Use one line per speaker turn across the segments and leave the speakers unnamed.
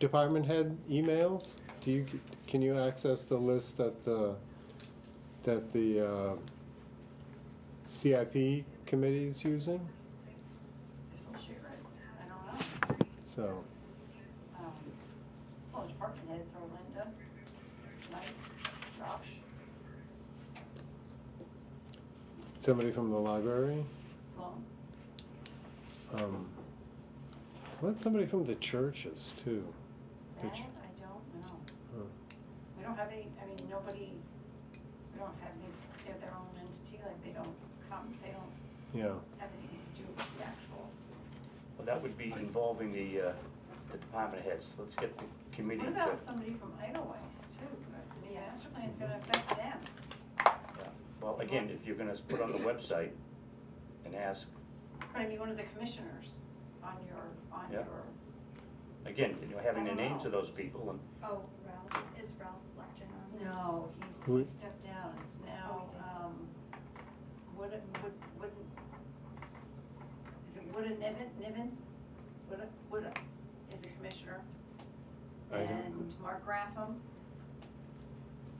Department head emails, do you, can you access the list that the, that the uh, CIP committee is using?
Shoot, right, I don't know.
So,
Um, Well, department heads are Linda, Mike, Josh,
somebody from the library,
Sloan.
um, what's somebody from the churches too? Uh,
That,
Did you-
I don't know.
Huh.
We don't have any, I mean, nobody, we don't have any, they have their own entity, like they don't come, they don't
Yeah,
have anything to do with the actual.
Well, that would be involving the, uh, the department heads. Let's get the committee.
What
to-
about somebody from Idlewise too? The master plan's gonna affect them.
yeah. Well, again, if you're gonna put on the website and ask,
But I mean, one of the commissioners on your, on
Yeah.
your,
again, you know, having the
I don't
names
know.
of those people and,
Oh, Ralph, is Ralph Legend on there?
no,
Who-
he's, he stepped down. It's now,
Oh, he did.
um, Wood, Wood, Wooden, is it Wooden Niven, Niven? Wood, Wood is a commissioner.
I don't-
And Mark Graffam.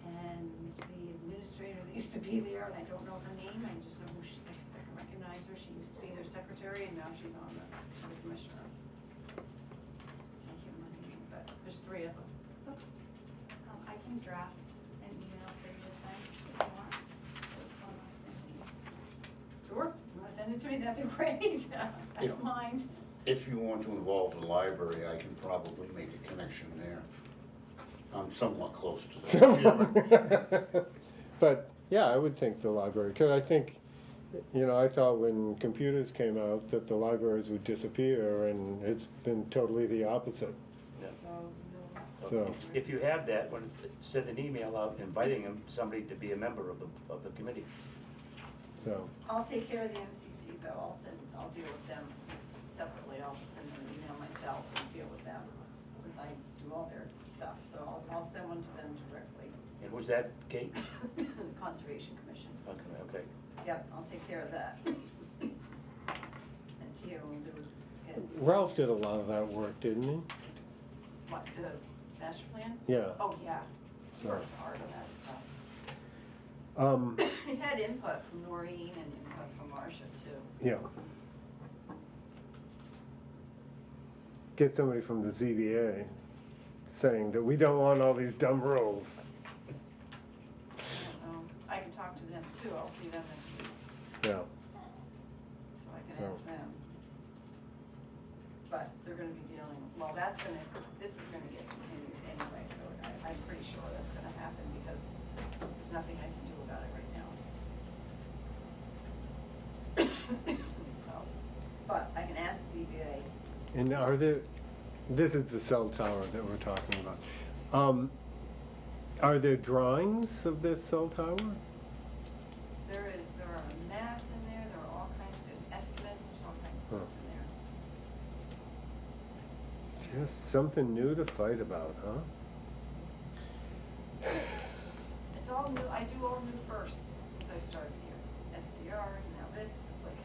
And the administrator that used to be there, and I don't know her name, I just know who she, I think I can recognize her. She used to be their secretary and now she's on the, she's a commissioner. I can't remember her name, but there's three of them.
Um, I can draft an email for you to sign if you want, so it's one less thing.
Sure, you wanna send it to me, that'd be great, I
Yeah.
don't mind.
If you want to involve the library, I can probably make a connection there. I'm somewhat close to that.
So, but yeah, I would think the library, because I think, you know, I thought when computers came out that the libraries would disappear, and it's been totally the opposite. So-
uh, if you have that, when, send an email out inviting them, somebody to be a member of the, of the committee.
So,
I'll take care of the MCC though, I'll send, I'll deal with them separately, I'll send them an email myself and deal with them, since I do all their stuff, so I'll, I'll send one to them directly.
And was that Kate?
The Conservation Commission,
Okay, okay.
yep, I'll take care of that. And Tia will do it,
Ralph did a lot of that work, didn't he?
what, the master plan?
Yeah.
Oh, yeah, she
So,
worked hard on that stuff.
um,
We had input from Noreen and input from Marcia too.
yeah. Get somebody from the ZBA saying that we don't want all these dumb rules.
I don't know. Um, I can talk to them too, I'll see them next week,
Yeah,
so I can
Oh.
ask them. But they're gonna be dealing, well, that's gonna, this is gonna get continued anyway, so I, I'm pretty sure that's gonna happen because there's nothing I can do about it right now. So, but I can ask ZBA,
and are there, this is the cell tower that we're talking about. Um, are there drawings of this cell tower?
there is, there are maps in there, there are all kinds, there's estimates, there's all kinds of stuff in there.
Just something new to fight about, huh?
It's all new, I do all new first since I started here. SDR, now this, it's like,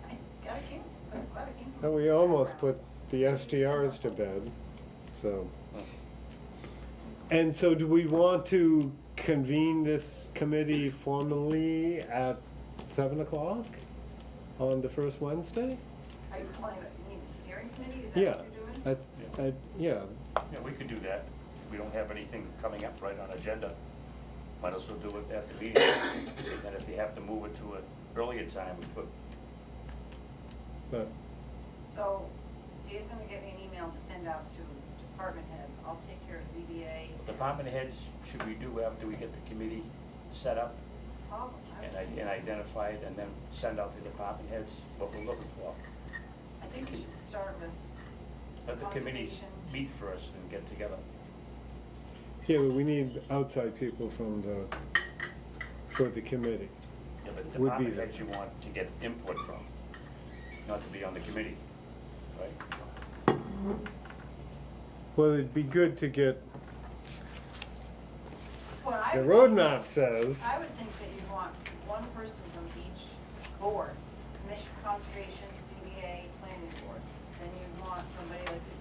I, I gotta keep, I'm glad I came. from
Well, we
the
almost put
background.
the SDRs to bed, so. And so do we want to convene this committee formally at seven o'clock on the first Wednesday?
Are you calling it, you need a steering committee, is
Yeah,
that what you're doing?
I, I, yeah,
Yeah, we could do that. We don't have anything coming up right on agenda. Might as well do it at the meeting. And if you have to move it to an earlier time, we could.
but,
So Jay's gonna get me an email to send out to department heads. I'll take care of ZBA.
Department heads, should we do after we get the committee set up
Problem.
and i- and identify it and then send out to the department heads what we're looking for?
I think we should start with,
Let the committees
Conservation.
meet first and get together.
yeah, but we need outside people from the, for the committee.
Yeah, but
Would be
department
the-
heads you want to get input from, not to be on the committee, right?
Well, it'd be good to get,
well, I.
the
would-
road map says,
I would think that you'd want one person from each board, commission, conservation, ZBA, planning board. Then you'd want somebody like the